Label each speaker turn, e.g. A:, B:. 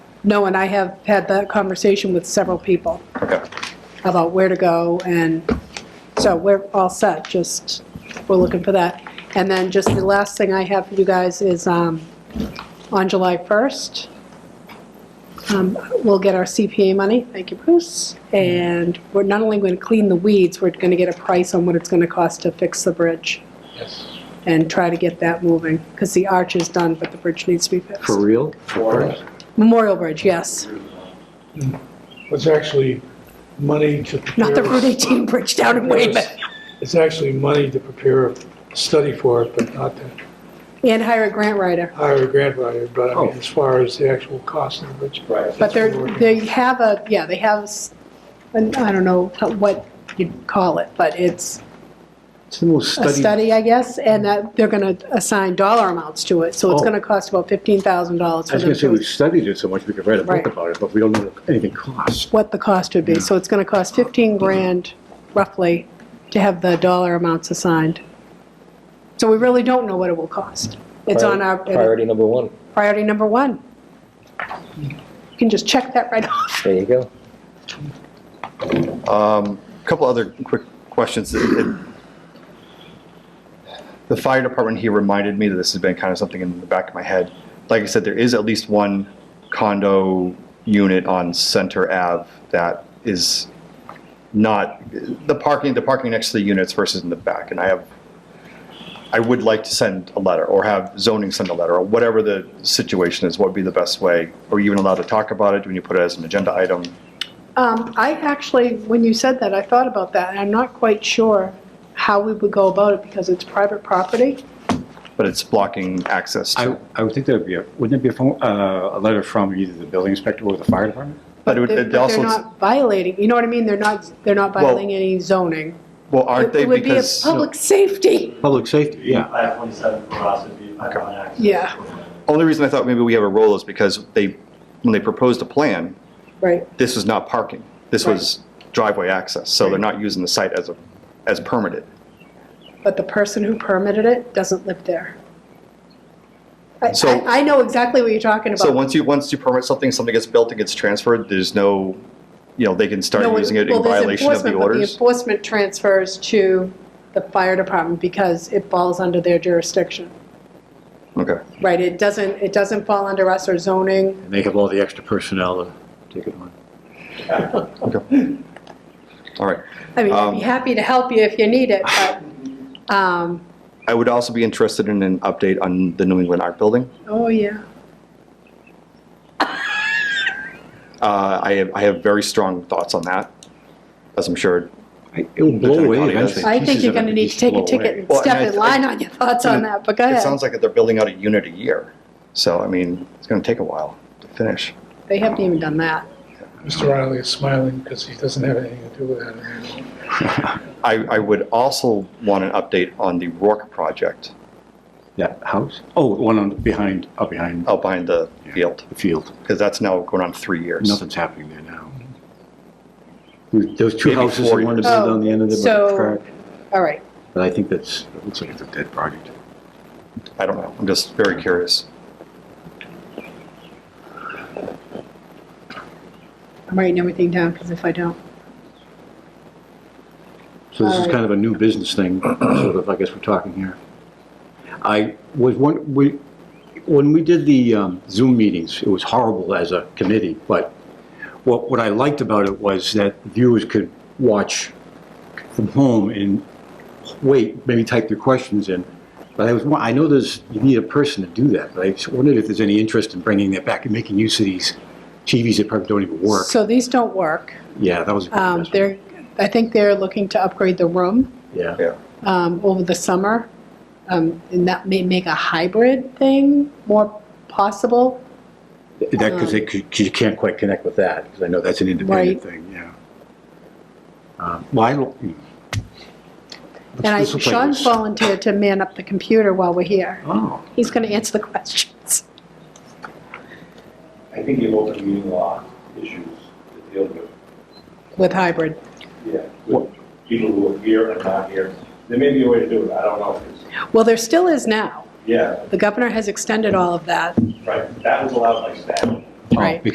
A: No, and I have had that conversation with several people
B: Okay.
A: about where to go, and so we're all set, just, we're looking for that. And then just the last thing I have for you guys is, um, on July 1st, um, we'll get our CPA money, thank you, Bruce, and we're not only going to clean the weeds, we're going to get a price on what it's going to cost to fix the bridge
C: Yes.
A: and try to get that moving, because the arch is done, but the bridge needs to be fixed.
D: For real?
A: Memorial Bridge, yes,
E: It's actually money to. prepare-
A: not the Route 18 bridge down in Weymouth.
E: It's actually money to prepare a study for it, but not to
A: And hire a grant writer.
E: hire a grant writer, but I mean,
D: Oh.
E: as far as the actual cost of which.
B: Right.
A: But they're, they have a, yeah, they have, s- an- I don't know how- what you'd call it, but it's
D: It's the most
A: a
D: studied.
A: study, I guess, and that they're going to assign dollar amounts to it, so it's
D: Oh.
A: going to cost about $15,000
D: I
A: for
D: was
A: them
D: gonna say, we've
A: to,
D: studied it so much, we could write a
A: Right.
D: book about it, but we don't know what anything costs.
A: what the cost would be. So it's going to cost 15
D: Mm-hmm.
A: grand roughly to have the dollar amounts assigned. So we really don't know what it will cost. It's on our,
C: Priority number one.
A: priority number one. You can just check that right off.
C: There you go.
B: Um, Couple other quick questions. It- it- The fire department here reminded me that this has been kind of something in the back of my head. Like I said, there is at least one condo unit on Center Ave that is not, the parking, the parking next to the units versus in the back. And I have, I would like to send a letter or have zoning send a letter or whatever the situation is, what would be the best way? Are you even allowed to talk about it? Do we need to put it as an agenda item?
A: Um, I actually, when you said that, I thought about that, and I'm not quite sure how we would go about it because it's private property.
B: But it's blocking access to.
D: I, I would think that would be, a wouldn't it be a phone, uh, a letter from either the building inspector or the fire department?
B: But it would-
A: They're-
B: it also,
A: They're not violating, you know what I mean? They're not, they're not
B: Well,
A: violating any zoning.
B: well, aren't they
A: It would be a
B: because,
A: public safety.
D: Public safety, yeah.
F: 527 for us would be 501 access.
A: Yeah.
B: only reason I thought maybe we have a role is because they, when they proposed a plan,
A: Right.
B: this was not parking. This was driveway access, so they're not using the site as a, as permitted.
A: But the person who permitted it doesn't live there. I,
B: So-
A: I- I know exactly what you're talking
B: So
A: about.
B: once you, once you permit something, something gets built and gets transferred, there's no, you know, they can start
A: No,
B: using it
A: well,
B: in
A: there's
B: violation of the
A: enforcement, but The
B: orders.
A: enforcement transfers to the fire department because it falls under their jurisdiction.
B: Okay,
A: Right, it doesn't, it doesn't fall under us or zoning.
D: And they have all the extra personnel to take it on.
B: all right.
A: I mean, I'd
B: Um,
A: be happy to help you if you need it, but, um,
B: I would also be interested in an update on the New England Art Building.
A: oh, yeah.
B: Uh, I have, I have very strong thoughts on that, as I'm sure
D: I- It will blow away eventually.
A: I think
D: Pieces
A: you're
D: of it
A: gonna need to
D: just
A: take
D: blow
A: a
D: away.
A: ticket and
B: Well, and
A: step
B: I-
A: in line on your thoughts on that, but go
B: It sounds
A: ahead.
B: like they're building out a unit a year. So, I mean, it's going to take a while to finish.
A: They haven't even done that.
E: Mr. Riley is smiling because he doesn't have anything to do with that anymore.
B: I, I would also want an update on the Rourke project
D: That house? Oh, the one on, behind, up behind
B: out behind the field,
D: the field.
B: because that's now going on three years.
D: Nothing's happening there now. Those two
B: Maybe
D: houses,
B: four
D: the one
B: years.
D: that's on the end of
A: Oh, So-
D: the track.
A: All right,
D: But I think that's, it looks like it's a dead project.
B: I don't know. I'm just very curious.
A: I'm writing everything down, because if I don't,
D: So this is
A: Alright.
D: kind of a new business thing, sort of, I guess we're talking here. I was, one we, when we did the um, Zoom meetings, it was horrible as a committee, but what, what I liked about it was that viewers could watch from home and wait, maybe type their questions in. But I was, wa- I know there's, you need a person to do that, but I just wondered if there's any interest in bringing that back and making use of these TVs that probably don't even work.
A: so these don't work.
D: Yeah, that was. a good
A: Um,
D: investment.
A: They're, I think they're looking to upgrade the room
D: Yeah,
A: um, over the summer, um, and that may make a hybrid thing more possible. Um,
D: that, because you can't quite connect with that, because I know that's an independent thing, yeah. Um, Well, I don't. hmm. Looks-
A: And I,
D: this looks like
A: Sean
D: it's-
A: volunteered to man up the computer while we're here.
D: Oh,
A: He's going to answer the questions.
F: I think the open meeting law issues that deal with,
A: With hybrid.
F: yeah, with people who are here and not here. There may be a way to do it, I don't know. if it's-
A: Well, there still is now.
F: Yeah,
A: The governor has extended all of that.
F: right, that was allowed by statute.
D: oh,
A: Right.